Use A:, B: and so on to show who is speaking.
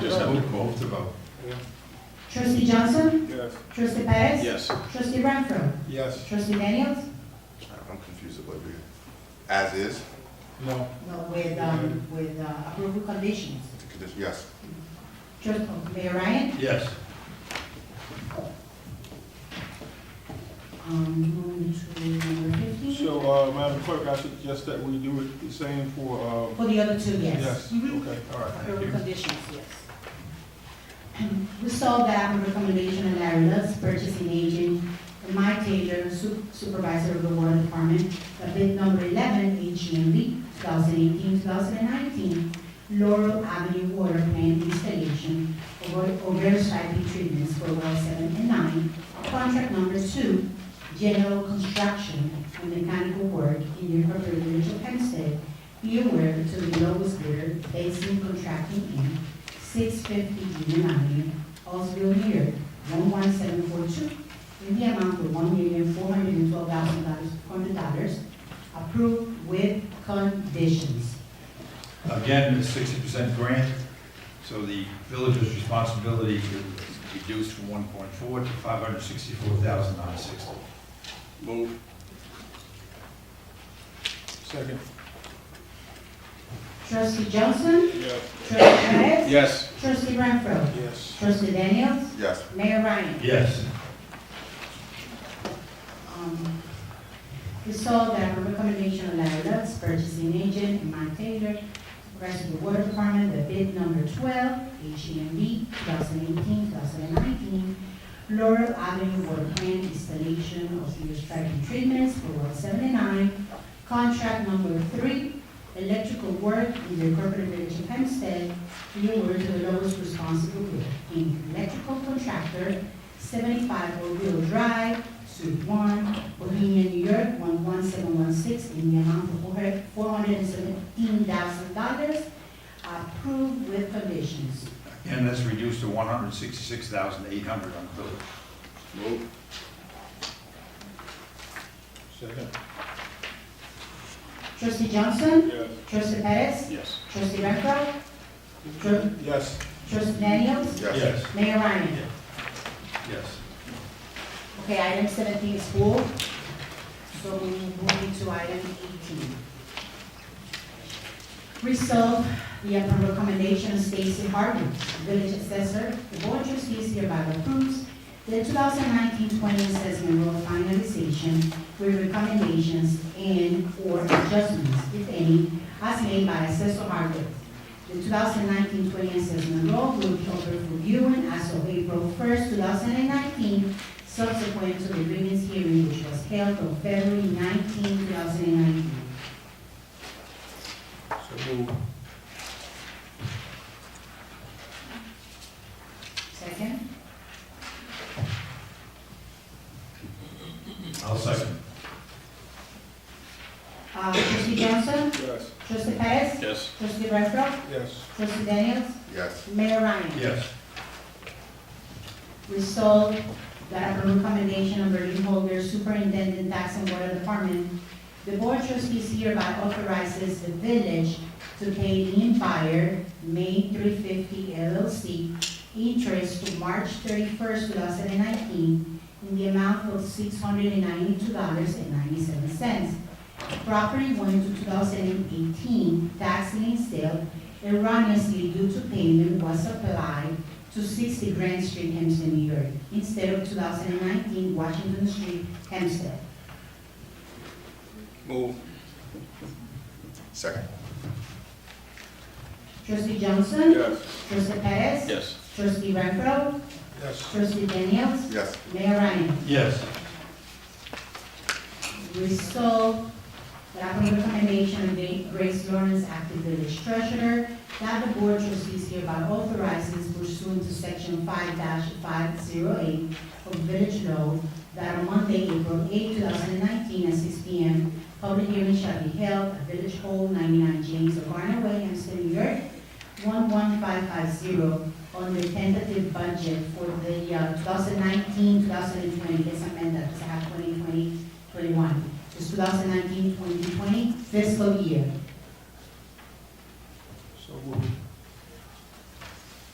A: Vote, vote to vote.
B: Trustee Johnson?
C: Yes.
B: Trustee Perez?
D: Yes.
B: Trustee Renfro?
C: Yes.
B: Trustee Daniels?
D: Uh, I'm confused about it. As is,
C: No.
B: No, with, um, with uh, approval conditions.
D: the condition- yes.
B: Trustee, Mayor Ryan?
A: Yes.
B: Um, moving to number fifteen.
C: So, uh, Madam Clerk, I suggest that we do it the same for, uh,
B: For the other two, yes.
C: yes,
B: Mhm.
C: okay, all right, thank
B: Approval
C: you.
B: conditions, yes. We saw that on recommendation of Larry Lutz, purchasing agent, and Mike Taylor, su- supervisor of the water department, the bid number eleven, E HGMB, 2018-2019, Laurel Avenue Water Plant Installation of o- Oversight Treatments for well seven and nine, contract number two, general construction and mechanical work in the appropriate village of Hempstead, be aware to the lowest bidder, Basin Contracting Inc., six fifty Union Avenue, Oswego, New York, one one seven four two, in the amount of one million four hundred and twelve thousand dollars, hundred dollars, approved with conditions.
A: Again, it's sixty percent grant, so the village's responsibility is reduced from one point four to five hundred sixty-four thousand nine sixty.
D: Move.
C: Second.
B: Trustee Johnson?
C: Yes.
B: Trustee Perez?
D: Yes.
B: Trustee Renfro?
C: Yes.
B: Trustee Daniels?
D: Yes.
B: Mayor Ryan?
A: Yes.
B: Um, We saw that on recommendation of Larry Lutz, purchasing agent, and Mike Taylor, rest of the water department, the bid number twelve, E HEMD, 2018-2019, Laurel Avenue Water Plant Installation of Sewer Striking Treatments for well seventy-nine, contract number three, electrical work in the corporate village of Hempstead, being awarded to the lowest responsible bidder, in electrical contractor, seventy-five Oakville Drive, Suite One, Bohemian, New York, one one seven one six, in the amount of four hundred and seventeen thousand dollars, approved with conditions.
A: And that's reduced to one hundred sixty-six thousand eight hundred on the village.
D: Move.
C: Second.
B: Trustee Johnson?
C: Yes.
B: Trustee Perez?
D: Yes.
B: Trustee Renfro? Tru-
C: Yes.
B: Trustee Daniels?
D: Yes.
B: Mayor Ryan?
A: Yes.
B: Okay, item seventeen is full, so we move to item eighteen. Resolve the upon recommendation of Stacy Hartman, village assessor, the board of trustees hereby approves the 2019-20 assessment rule finalization with recommendations and/or adjustments, if any, as made by assessor Hartman. The 2019-20 assessment rule will be open for viewing as of April first, two thousand and nineteen, subsequent to the grievance hearing which was held on February 19, 2019.
C: So move.
B: Second?
A: I'll second.
B: Uh, Trustee Johnson?
C: Yes.
B: Trustee Perez?
D: Yes.
B: Trustee Renfro?
C: Yes.
B: Trustee Daniels?
D: Yes.
B: Mayor Ryan?
A: Yes.
B: Resolved that upon recommendation of Berlin Holger, Superintendent Tax and Water Department, the Board of Trustees hereby authorizes the village to pay Lynn Fire, May 350 LLC, interest to March 31st, 2019, in the amount of $692.97. Property went to 2018 tax lien sale erroneously due to payment was applied to 60 Grand Street, Hempstead, New York, instead of 2019 Washington Street, Hempstead.
D: Move. Second.
B: Trustee Johnson?
C: Yes.
B: Trustee Perez?
D: Yes.
B: Trustee Renfro?
C: Yes.
B: Trustee Daniels?
D: Yes.
B: Mayor Ryan?
A: Yes.
B: Resolve that upon recommendation of Grace Lawrence, acting village treasurer, that the board trustees hereby authorizes pursuant to section five five zero eight of village law, that on Monday, April 8, thousand and nineteen, at six P M, public hearing shall be held at Village Hall, ninety-nine James O'Garner Way, Hempstead, New York, one one five five zero, on the tentative budget for the, uh, 2019-2020. thousand nineteen, two thousand and twenty, let's amend that, because I have twenty twenty 21, this 2019-2020 fiscal year.